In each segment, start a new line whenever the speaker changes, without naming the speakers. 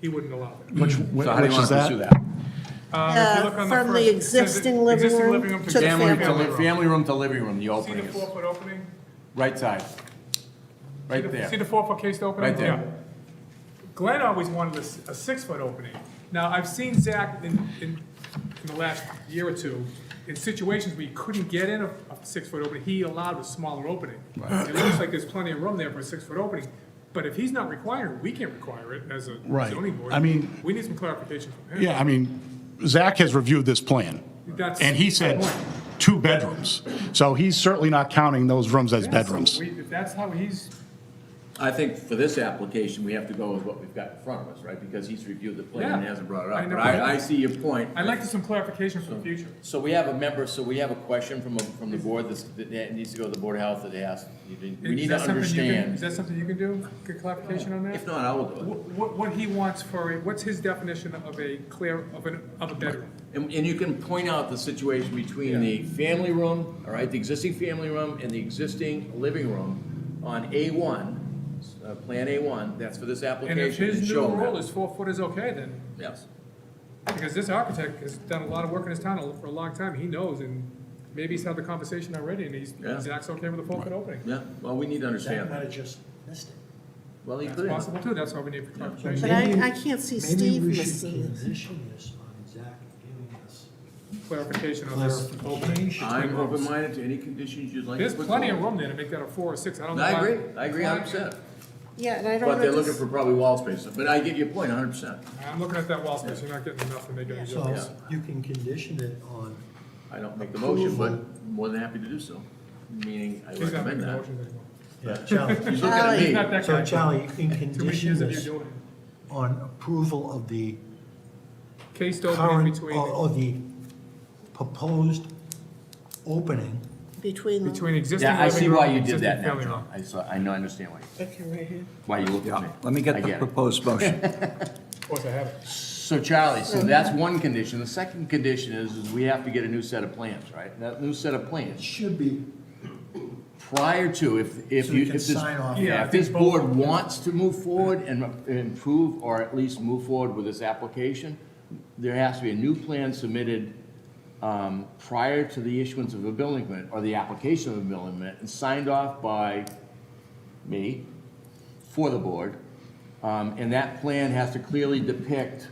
he wouldn't allow that.
Which,
So how do you
which
want
is
to pursue
that?
that?
Um, if you look
Uh,
on
from the
first- it says
existing living room to the
Family, to
family
li- family room to living room, the
See the
opening is,
four-foot opening?
right side,
See
right
the- See
there.
the four-foot cased opening?
Right there.
Yeah. Glenn always wanted a, s- a six-foot opening. Now, I've seen Zach in, in, in the last year or two, in situations where he couldn't get in a, a six-foot opening, he allowed a smaller opening. It looks like there's plenty of room there for a six-foot opening, but if he's not requiring, we can't require it as a
Right.
zoning board.
I mean-
We need some clarification from him.
Yeah, I mean, Zach has reviewed this plan,
That's
and he
my
said
point.
two bedrooms. So he's certainly not counting those rooms as
Yeah, so
bedrooms.
we- If that's how he's,
I think for this application, we have to go with what we've got in front of us, right? Because he's reviewed the plan and
Yeah.
hasn't brought it
I
up.
know.
But I, I see your point.
I'd like to some clarification for the future.
So we have a member, so we have a question from, a- from the board that's- that needs to go to the Board of Health that they asked, you didn't- we
Is
need to
that something you can- Is
understand.
that something you can do, get clarification on that?
If not, I will do it.
What, what he wants for, a what's his definition of a clear, of an, of a bedroom?
And, and you can point out the situation between the family room, all right, the existing family room and the existing living room on A1, uh, Plan A1, that's for this
And
application.
if his new
show them
rule
that.
is four foot is okay, then,
Yes.
because this architect has done a lot of work in his town for a long time, he knows, and maybe he's had the conversation already, and he's,
Yeah.
Zach's okay with a four foot opening.
Yeah, well, we need to
Zach
understand
might
that.
have just missed it.
Well, he
That's
could.
possible too, that's why we need clarification.
But I, I can't see Steve
Maybe we should
missing.
condition this on Zach giving us
Clarification on Oh, this opening.
clarification.
I'm open-minded to any conditions you'd like. to
There's
put
plenty of
forward.
room there to make that a four or six, I don't know.
I
why-
agree, I agree hundred percent.
Yeah, and I don't.
But they're looking
understand-
for probably wall space, but I get your point hundred percent.
I'm looking at that wall space, you're not getting enough to make any difference.
So
Yeah.
you can condition it on,
I don't make the motion, but more than happy to do so, meaning I
He's not making
recommend that.
motions anymore.
yeah,
He's looking
uh, Charlie.
at
He's
me.
not that
So
guy.
Charlie, you can
Too many
condition
years of you
this
doing it.
on approval of the
Cased opening
current, or,
between,
or the proposed opening
Between. them.
between existing
Yeah, I
living
see
room
why
and
you did
existing
that now,
family
John.
room.
I saw, I know, I understand why, you-
Okay, right here.
why you looked at Oh, me.
Let me
I
get the
it.
proposed motion.
Of course I have it.
So Charlie, so that's one condition. The second condition is, is we have to get a new set of plans, right? That new set of plans,
should be,
prior to, if, if
So
you,
you
if
can
this.
sign off.
Yeah, I
Yeah, if this
think both-
board wants to move forward and improve, or at least move forward with this application, there has to be a new plan submitted um, prior to the issuance of a building permit, or the application of a building permit, and signed off by me for the board. Um, And that plan has to clearly depict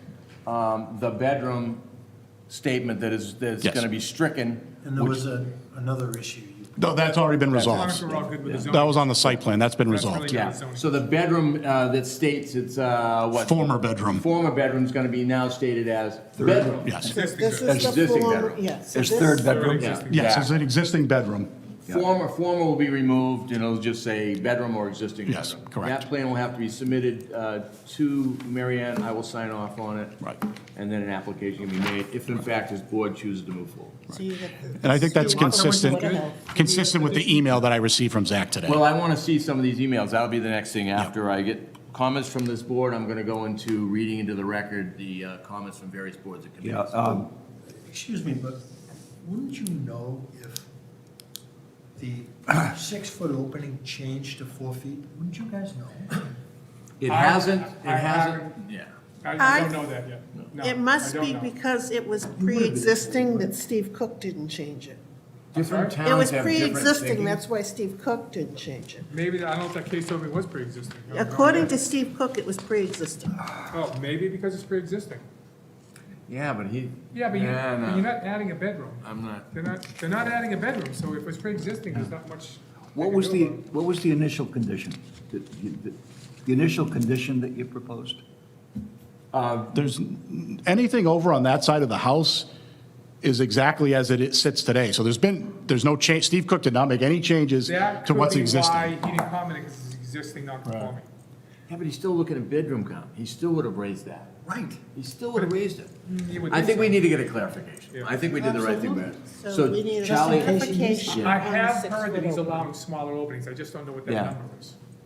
um, the bedroom statement that is, that's
Yes.
gonna be stricken.
and there
which-
was a, another issue. you-
No, that's already been
As long as
resolved.
we're all good with the zoning.
That was on the site plan, that's been
That's really
resolved.
good.
Yeah,
zoning.
so the bedroom uh, that states it's, uh, what?
Former bedroom,
Former bedroom's gonna be now stated as bedroom.
yes.
Existing
This
good.
is the
Existing
form,
bedroom.
yes.
There's third bedroom.
Already existing.
Yes, it's an existing bedroom.
Former, former will be removed, and it'll just say bedroom or existing bedroom.
Yes, correct.
That plan will have to be submitted uh, to Mary Ann, I will sign off on it.
Right.
And then an application can be made, if in fact this board chooses to move forward.
And I think that's consistent,
Water Health.
consistent with the email that I received from Zach today.
Well, I want to see some of these emails, that'll be the next thing, after I get comments from this board, I'm gonna go into reading into the record the uh, comments from various boards and
Yeah,
committees.
uh,
um,
Excuse me, but wouldn't you know if the six-foot opening changed to four feet? Wouldn't you guys know?
It
I-
hasn't, it
I- I-
hasn't, yeah.
I I don't
I-
know that yet. No,
It
I
must
don't
be
know.
because it was pre-existing that Steve Cook didn't change it.
Different
It was
towns have different
pre-existing,
thinking.
that's why Steve Cook didn't change it.
Maybe, the- I don't know if that case opening was pre-existing. I don't know
According to
yet.
Steve Cook, it was pre-existing.
Oh, maybe because it's pre-existing.
Yeah, but he.
Yeah, but you,
Nah,
but
nah,
you're not adding a bedroom.
I'm not.
They're not, they're not adding a bedroom, so if it's pre-existing, there's not much. they
What
can
was
do
the,
about it.
what was the initial condition? that you- that- The initial condition that you proposed?
There's, anything over on that side of the house is exactly as it sits today. So there's been, there's no change, Steve Cook did not make any changes
That
to
could
what's
be why
existing.
he didn't comment, because it's existing non-conforming.
Yeah, but he's still looking at bedroom count. He still would have raised that.
Right.
He still would have raised it.
You would
I think
so.
we need to get a clarification.
Yeah.
I think we did the right thing there.
So we need a
Charlie-
clarification
I
on the
have heard that
six-foot
he's
opening.
allowing smaller openings, I just don't know what
Yeah.
that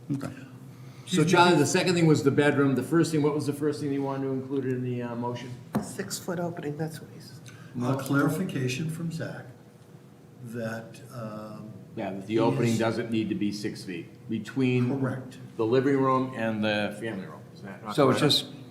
number is.
So Charlie, the second thing was the bedroom. The first thing, what was the first thing you wanted to include in the uh, motion?
Six-foot opening, that's what he's,
A clarification from Zach that, um,
Yeah, that the opening
Yes.
doesn't need to be six feet between
correct.
the living room and the family room. Is that not
So it's
correct?
just